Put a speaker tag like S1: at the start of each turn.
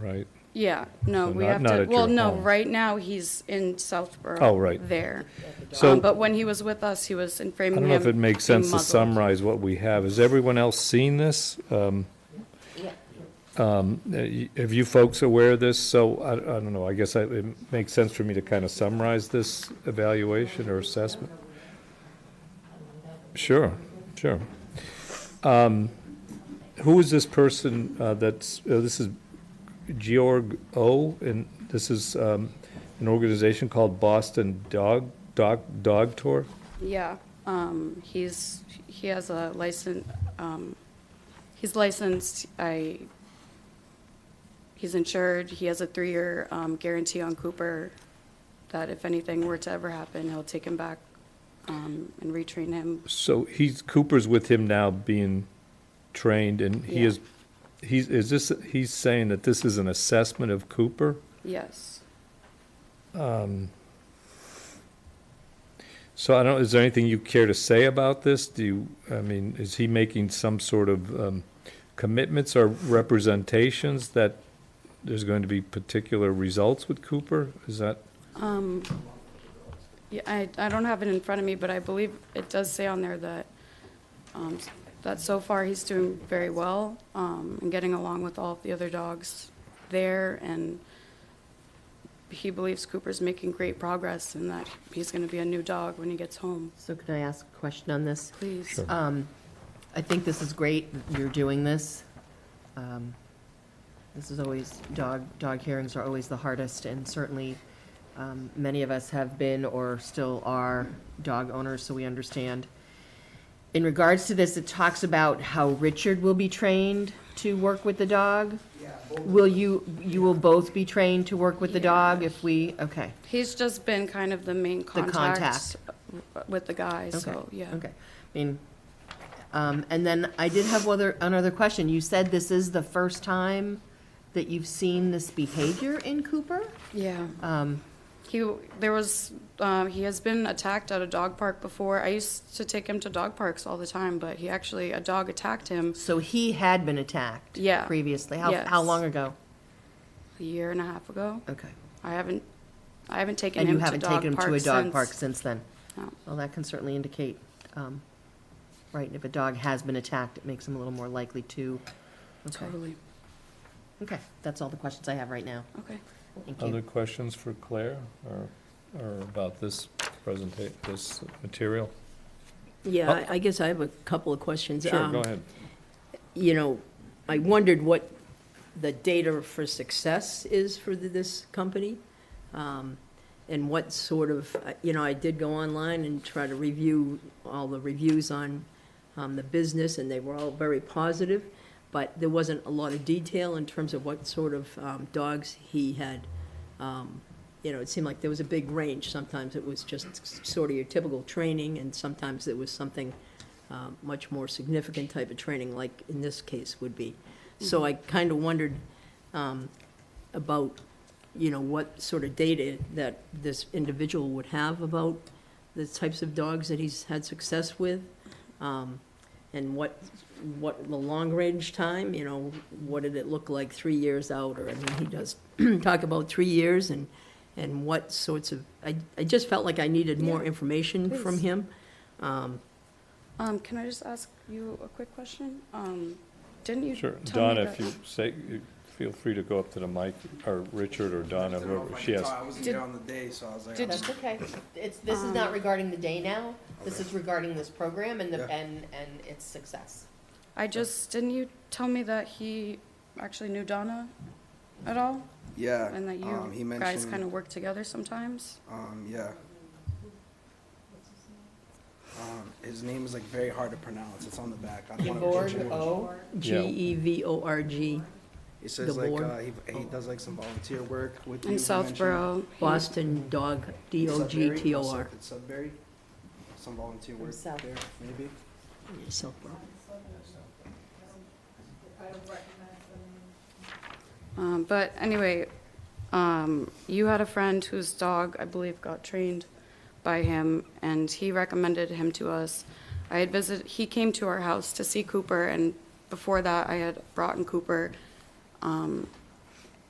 S1: right?
S2: Yeah, no,
S1: So
S2: we
S1: not-
S2: have
S1: not
S2: to,
S1: at
S2: well,
S1: your
S2: no,
S1: home.
S2: right now, he's in Southborough.
S1: Oh, right.
S2: There.
S1: So-
S2: Um, But when he was with us, he was in
S1: I
S2: Framingham.
S1: don't know if it makes sense to
S2: bemuzzled.
S1: summarize what we have. Has everyone else seen this? Um,
S3: Yeah.
S1: um, uh, y- Have you folks aware of this? So, I I don't know, I guess I- it makes sense for me to kind of summarize this evaluation or assessment. Sure, sure. Um, Who is this person uh, that's, uh, this is Georg O., and this is um, an organization called Boston Dog, Dog, Dog Tour?
S2: Yeah, um, he's, he has a license, um, he's licensed, I, he's insured, he has a three-year, um, guarantee on Cooper that if anything were to ever happen, he'll take him back, um, and retrain him.
S1: So he's, Cooper's with him now being trained and he
S2: Yeah.
S1: is, he's, is this, he's saying that this is an assessment of Cooper?
S2: Yes.
S1: So I don't, is there anything you care to say about this? Do you, I mean, is he making some sort of um, commitments or representations that there's going to be particular results with Cooper? Is that,
S2: Um, yeah, I, I don't have it in front of me, but I believe it does say on there that, um, that so far he's doing very well, um, and getting along with all of the other dogs there, and he believes Cooper's making great progress and that he's gonna be a new dog when he gets home,
S3: So can I ask a question on this?
S2: please.
S1: Sure.
S3: Um, I think this is great, that you're doing this. Um, This is always, dog, dog hearings are always the hardest, and certainly, um, many of us have been or still are dog owners, so we understand. In regards to this, it talks about how Richard will be trained to work with the dog. Will you, you will both be trained to work with the dog if we, okay.
S2: He's just been kind of the main contact
S3: contact.
S2: with the guy, so,
S3: Okay,
S2: yeah.
S3: Okay, I mean, um, and then I did have other, another question. You said this is the first time that you've seen this behavior in Cooper?
S2: Yeah.
S3: Um,
S2: He there was um, he has been attacked at a dog park before. I used to take him to dog parks all the time, but he actually a dog attacked him
S3: so he had been attacked?
S2: Yeah.
S3: Previously? How,
S2: Yes.
S3: how long ago?
S2: a year and a half ago.
S3: Okay.
S2: I haven't I haven't taken
S3: And
S2: him
S3: you haven't
S2: to dog
S3: taken him to a
S2: parks
S3: dog
S2: since.
S3: park since then?
S2: No.
S3: Well, that can certainly indicate, um, right, if a dog has been attacked, it makes him a little more likely to. Okay,
S2: Totally.
S3: okay, that's all the questions I have right now.
S2: Okay.
S3: Thank you.
S1: other questions for Claire or, or about this presentation, this material?
S4: Yeah, I- I guess I have a couple of questions.
S1: Oh. Sure,
S4: Um,
S1: go ahead.
S4: You know, I wondered what the data for success is for th- this company, um, and what sort of, uh, you know, I did go online and try to review all the reviews on um, the business, and they were all very positive, but there wasn't a lot of detail in terms of what sort of um, dogs he had. um, You know, it seemed like there was a big range. Sometimes it was just s- sort of your typical training, and sometimes there was something um, much more significant type of training, like in this case would be. So I kind of wondered um, about, you know, what sort of data that this individual would have about the types of dogs that he's had success with, um, and what, what the long-range time, you know, what did it look like three years out, or, I mean, he does talk about three years, and, and what sorts of, I, I just felt like I needed more information from
S2: please.
S4: him. Um,
S2: Um, can I just ask you a quick question? Um, didn't you
S1: Sure,
S2: tell me
S1: Donna, if
S2: that-
S1: you say, feel free to go up to the mic, or Richard or Donna,
S5: don't know if
S1: whoever,
S5: I
S1: she
S5: could
S1: has.
S5: talk. I wasn't
S2: Did-
S5: there on the day, so I was like,
S2: did-
S5: I'm
S3: That's okay. It's, this is not regarding the day now. This is regarding this program and the,
S5: Yeah.
S3: and, and its success.
S2: I just didn't you tell me that he actually knew Donna at all,
S5: yeah.
S2: and that you
S5: um, he mentioned,
S2: guys kind of work together sometimes.
S5: Um, yeah. Um, his name is like very hard to pronounce. It's on the back. I don't want
S3: Georg
S5: to
S2: Oh.
S3: O.
S1: Yeah.
S4: E G-E-V-O-R-G,
S5: He says like
S4: Gabor.
S5: uh, he, he does like some volunteer work with you,
S2: In
S5: he
S2: Southborough, he-
S4: Boston Dog,
S5: mentioned.
S4: D-O-G-T-O-R.
S5: Sudbury, Sudbury, some volunteer work
S3: South.
S5: there, maybe.
S4: So,
S2: Um, but anyway, um, you had a friend whose dog, I believe, got trained by him, and he recommended him to us. I had visited, he came to our house to see Cooper, and before that, I had brought in Cooper um,